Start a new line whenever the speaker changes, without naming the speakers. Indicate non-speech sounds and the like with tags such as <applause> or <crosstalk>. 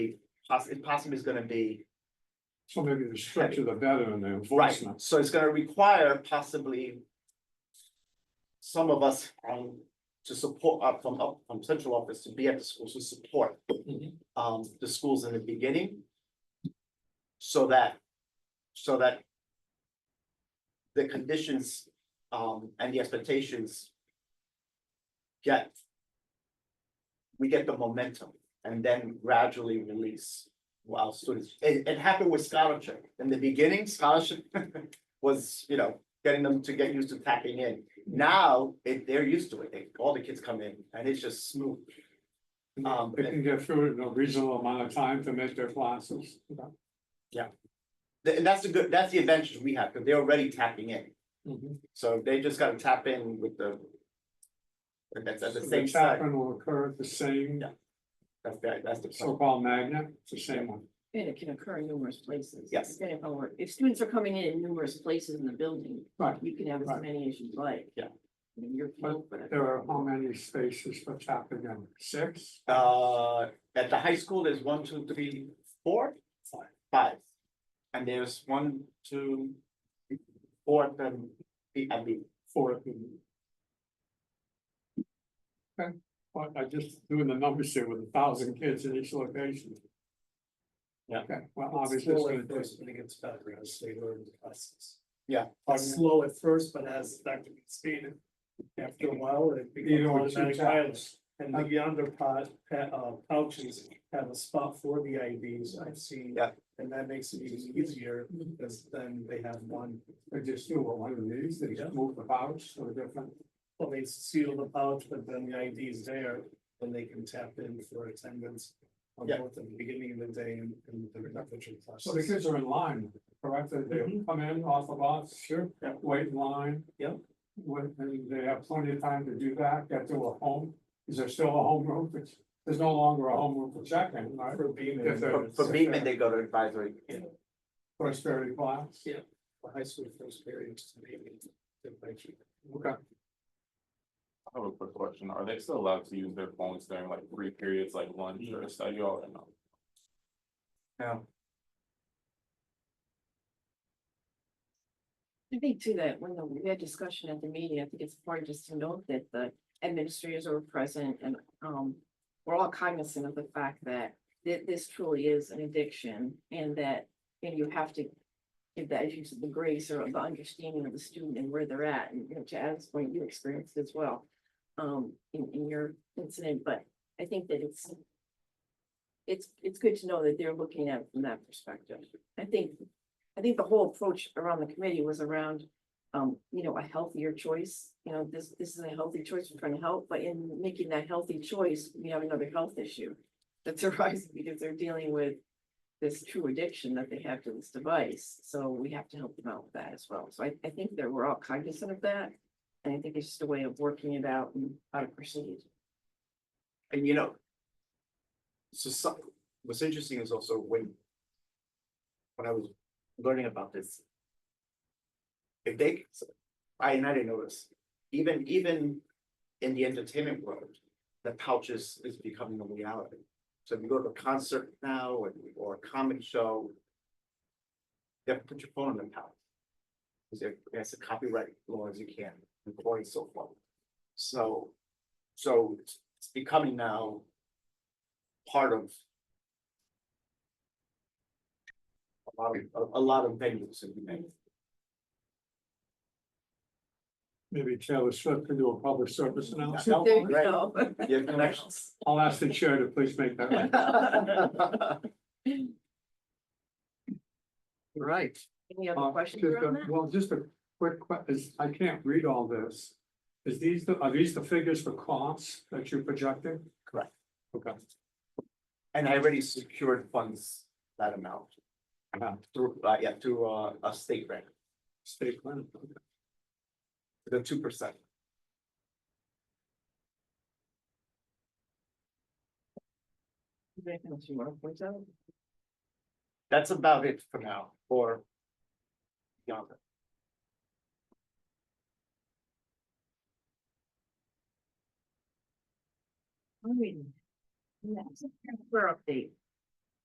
possum, possum is gonna be,
So maybe the structure the better and the
right,
enforcement.
so it's gonna require possibly. Some of us um to support up from up from central office to be at the schools to support
Mhm.
um the schools in the beginning. So that, so that. The conditions um and the expectations. Get. We get the momentum and then gradually release while students, it it happened with scholarship. In the beginning, scholarship <laughs> was, you know, getting them to get used to tapping in. Now, it they're used to it, They- all the kids come in and it's just smooth. Um,
They can get through it in a reasonable amount of time to make their classes.
Th- And that's the good, that's the advantage we have, because they're already tapping in, Mm-hmm.
Mhm.
so they just gotta tap in with the. and That's at
So
the
The
same side,
tapping will occur at the same
Yeah. that's the, that's the. plan.
so-called magnet, it's the same one.
And it can occur in numerous places.
Yes.
Depending upon where- if students are coming in in numerous places in the building,
Right.
you can have as
Right.
many as you'd like.
Yeah.
In your field, but.
There are how many spaces for tapping in? Six?
Uh, at the high school, there's one, two, three, four, five. And there's one, two, four, then the, I mean,
Four. at the- Okay, well, I just doing the numbers here with a thousand kids in each location.
Yeah.
Okay, well, obviously. it's
Slow
gonna
at
take-
first, but it gets better as they learn the lessons.
Yeah.
It's slow at first, but as that can be speeded, after a while, it becomes
Even with two
automatic pilot.
taps.
And the yonder pod, pa- uh, pouches have a spot for the IDs, I've seen.
Yeah.
And that makes it even easier, because then they have one,
They just do a one of these, they just move the pouch or different.
well, they seal the pouch, but then the ID is there, and they can tap in for attendance. On
Yeah.
both at the beginning of the day and, and the reduction class.
So the kids are in line, correct? They they come in off the bus. Sure.
Yep.
Wait in line.
Mm-hmm. Yep.
When, and they have plenty of time to do that, get to a home. Is there still a home room? There's- There's no longer a home room for check-in, right?
For being.
If they're-
for, for Beekman, they go to advisory.
First thirty class.
Yeah. the high school first period, maybe. the bike.
Okay.
I have a quick question. Are they still allowed to use their phones during like three periods like lunch or study hall or no?
Now,
I think too that when the- we had discussion at the meeting, I think it's important just to note that the administrators are present and um. We're all cognizant of the fact that thi- this truly is an addiction and that, and you have to. Give that as you said, the grace or the understanding of the student and where they're at, and you know, to Adam's point, you experienced as well. Um, in in your incident, but I think that it's. It's it's good to know that they're looking at it from that perspective. I think I think the whole approach around the committee was around, um, you know, a healthier choice. You know, this, this is a healthy choice we're trying to help, but in making that healthy choice, we have another health issue. That's <laughs> arising because they're dealing with this true addiction that they have to this device. So we have to help them out with that as well. So I, I think that we're all cognizant of that. And I think it's just a way of working it out and how to proceed.
and you know. So some, what's interesting is also when. When I was learning about this. If they, I and I didn't notice, even even in the entertainment world, the pouches is becoming a reality. So if you go to a concert now or or a comedy show. You have to put your phone in the pouch. Because there- there's a copyright law as you can, recording so far. So, so it's- it's becoming now part of a lot of, a- a lot of venues in United.
Maybe Taylor Swift can do a public service
No,
announcement.
There you
great.
go.
You have connections.
I'll ask the chair to please make that. right.
<laughs>
Right.
Any other
Uh,
questions
just a-
around that?
Well, just a quick que- is I can't read all this. Is these, the are these the figures for costs that you're projecting?
Correct.
Okay.
And I already secured funds that amount
Yeah,
through, uh, yeah, through uh, a state grant,
State plan. okay.
the two percent.
Is there Anything else you want to point out?
That's about it for now, for beyond that.
Alright. Next, Career update.